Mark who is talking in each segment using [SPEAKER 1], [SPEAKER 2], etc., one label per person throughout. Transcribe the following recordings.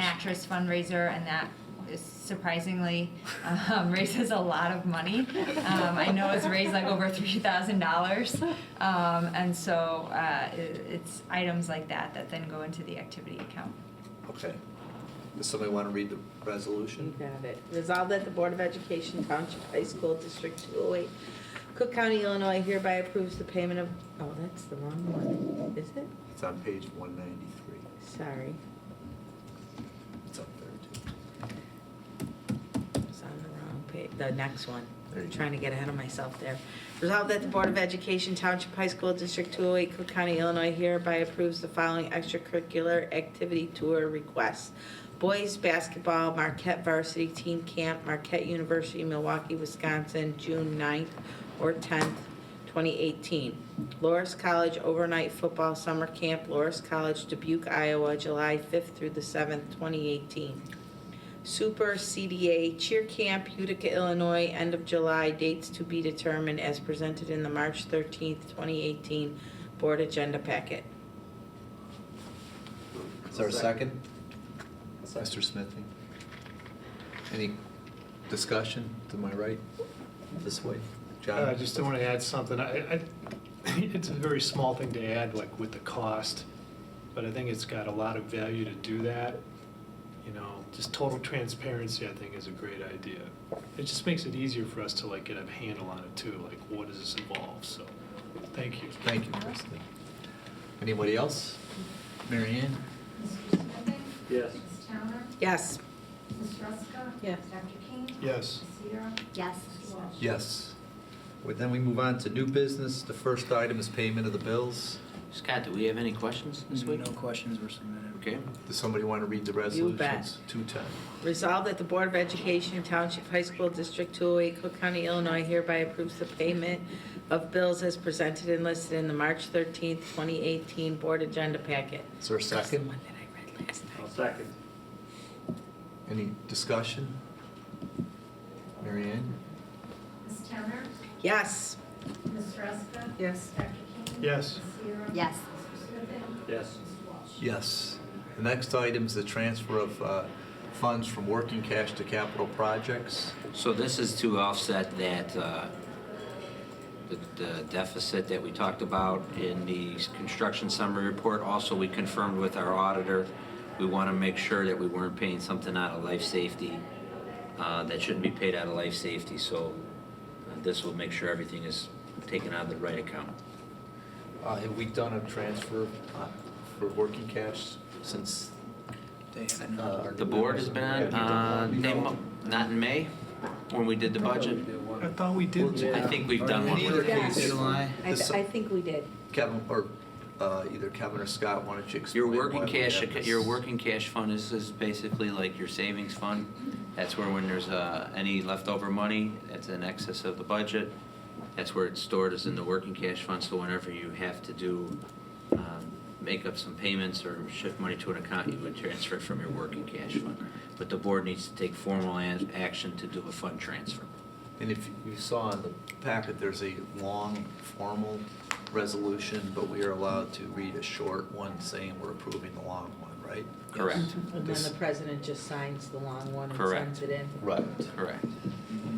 [SPEAKER 1] mattress fundraiser, and that is surprisingly um, raises a lot of money. Um, I know it's raised like over three thousand dollars, um, and so uh, i it's items like that that then go into the activity account.
[SPEAKER 2] Okay. Does somebody want to read the
[SPEAKER 3] You
[SPEAKER 2] resolution?
[SPEAKER 3] got it. Resolved that the Board of Education Township High School District 208, Cook County, Illinois hereby approves the payment of, oh, that's the wrong one, is it?
[SPEAKER 2] It's on page one ninety-three.
[SPEAKER 3] Sorry,
[SPEAKER 2] It's up there too.
[SPEAKER 3] it's on the wrong page, the next one.
[SPEAKER 2] There you go.
[SPEAKER 3] Trying to get ahead of myself there. Resolved that the Board of Education Township High School District 208, Cook County, Illinois hereby approves the following extracurricular activity tour requests. Boys Basketball, Marquette Varsity Team Camp, Marquette University, Milwaukee, Wisconsin, June 9th or 10th, 2018. Loris College Overnight Football Summer Camp, Loris College, Dubuque, Iowa, July 5th through the 7th, 2018. Super CDA Cheer Camp, Utica, Illinois, end of July, dates to be determined as presented in the March 13th, 2018 Board Agenda Packet.
[SPEAKER 2] Is there a second? Mr. Smithing? Any discussion to my right, this way? John?
[SPEAKER 4] I Uh, just want to add something. I, I, it's a very small thing to add, like with the cost, but I think it's got a lot of value to do that. You know, just total transparency, I think, is a great idea. It just makes it easier for us to like get a handle on it too, like what does this involve, so, thank you.
[SPEAKER 2] Thank you, Kristen. Anybody else? Mary Ann?
[SPEAKER 5] Mr. Smithing?
[SPEAKER 6] Yes.
[SPEAKER 5] Ms. Towner?
[SPEAKER 3] Yes.
[SPEAKER 5] Ms. Ruska?
[SPEAKER 3] Yes.
[SPEAKER 5] Dr. King?
[SPEAKER 4] Yes.
[SPEAKER 5] Ms. Sierra?
[SPEAKER 7] Yes.
[SPEAKER 5] Mr. Walsh?
[SPEAKER 2] Yes. Well, Then we move on to new business. The first item is payment of the bills.
[SPEAKER 6] Scott, do we have any questions this week?
[SPEAKER 8] No questions were submitted.
[SPEAKER 6] Okay.
[SPEAKER 2] Does somebody want to read the resolutions?
[SPEAKER 3] bet.
[SPEAKER 2] Two ten.
[SPEAKER 3] Resolved that the Board of Education Township High School District 208, Cook County, Illinois hereby approves the payment of bills as presented and listed in the March 13th, 2018 Board Agenda Packet.
[SPEAKER 2] Is there a
[SPEAKER 3] That's the
[SPEAKER 2] second?
[SPEAKER 3] one that I read last night.
[SPEAKER 6] I'll second.
[SPEAKER 2] Any discussion? Mary Ann?
[SPEAKER 5] Ms. Towner?
[SPEAKER 3] Yes.
[SPEAKER 5] Ms. Ruska?
[SPEAKER 3] Yes.
[SPEAKER 5] Dr. King?
[SPEAKER 4] Yes.
[SPEAKER 5] Ms. Sierra?
[SPEAKER 7] Yes.
[SPEAKER 5] Mr. Smithing?
[SPEAKER 6] Yes.
[SPEAKER 5] Mr. Walsh?
[SPEAKER 2] Yes. The next item is the transfer of uh, funds from working cash to capital projects.
[SPEAKER 6] So this is to offset that, uh, the- the deficit that we talked about in the construction summary report. Also, we confirmed with our auditor, we want to make sure that we weren't paying something out of life safety uh, that shouldn't be paid out of life safety. So uh, this will make sure everything is taken out of the right account.
[SPEAKER 2] Uh, Have we done a transfer uh, for working cash since?
[SPEAKER 8] They had
[SPEAKER 2] uh,
[SPEAKER 8] another.
[SPEAKER 2] our
[SPEAKER 6] The
[SPEAKER 2] new
[SPEAKER 6] board
[SPEAKER 2] members?
[SPEAKER 6] has been
[SPEAKER 2] Have
[SPEAKER 6] on,
[SPEAKER 2] you done
[SPEAKER 6] uh,
[SPEAKER 2] one?
[SPEAKER 6] they mo- not in May, when we did the budget.
[SPEAKER 4] I thought we did
[SPEAKER 2] did.
[SPEAKER 4] that.
[SPEAKER 6] I think we've done one
[SPEAKER 2] In either
[SPEAKER 6] with
[SPEAKER 2] case,
[SPEAKER 6] it.
[SPEAKER 3] I th- I think we did.
[SPEAKER 2] Kevin, or uh, either Kevin or Scott, why don't you explain?
[SPEAKER 6] Your working
[SPEAKER 2] why we
[SPEAKER 6] cash,
[SPEAKER 2] have this?
[SPEAKER 6] your working cash fund is, is basically like your savings fund. That's where when there's, uh, any leftover money, that's in excess of the budget. That's where it's stored, is in the working cash fund, so whenever you have to do, um, make up some payments or shift money to an account, you would transfer it from your working cash fund. But the board needs to take formal an- action to do a fund transfer.
[SPEAKER 2] And if you saw in the packet, there's a long, formal resolution, but we are allowed to read a short one saying we're approving the long one, right?
[SPEAKER 6] Correct,
[SPEAKER 3] And then the president just signs the long one and
[SPEAKER 6] Correct.
[SPEAKER 3] sends it in.
[SPEAKER 2] Right.
[SPEAKER 6] correct.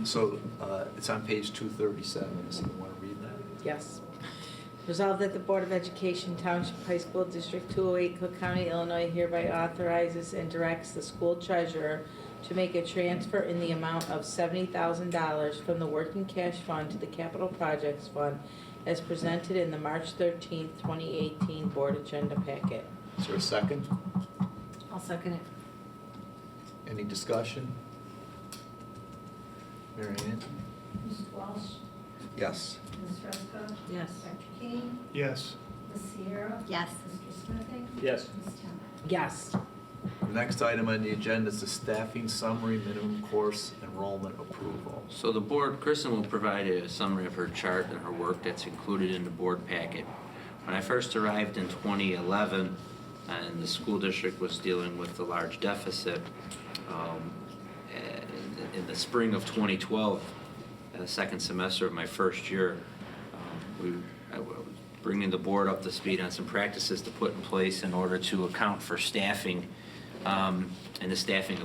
[SPEAKER 2] So uh, it's on page 237, does anyone want to read that?
[SPEAKER 3] Yes. Resolved that the Board of Education Township High School District 208, Cook County, Illinois hereby authorizes and directs the school treasurer to make a transfer in the amount of $70,000 from the working cash fund to the capital projects fund as presented in the March 13th, 2018 Board Agenda Packet.
[SPEAKER 2] Is there a second?
[SPEAKER 7] I'll second it.
[SPEAKER 2] Any discussion? Mary Ann?
[SPEAKER 5] Mr. Walsh?
[SPEAKER 2] Yes.
[SPEAKER 5] Ms. Ruska?
[SPEAKER 3] Yes.
[SPEAKER 5] Dr. King?
[SPEAKER 4] Yes.
[SPEAKER 5] Ms. Sierra?
[SPEAKER 7] Yes.
[SPEAKER 5] Mr. Smithing?
[SPEAKER 6] Yes.
[SPEAKER 5] Ms. Towner?
[SPEAKER 3] Yes.
[SPEAKER 2] The next item on the agenda is the staffing summary minimum course enrollment approval.
[SPEAKER 6] So the board, Kristen will provide a summary of her chart and her work that's included in the board packet. When I first arrived in 2011, and the school district was dealing with the large deficit, um, in- in the spring of 2012, uh, second semester of my first year, um, we, I was bringing the board up to speed on some practices to put in place in order to account for staffing Um, And the staffing, of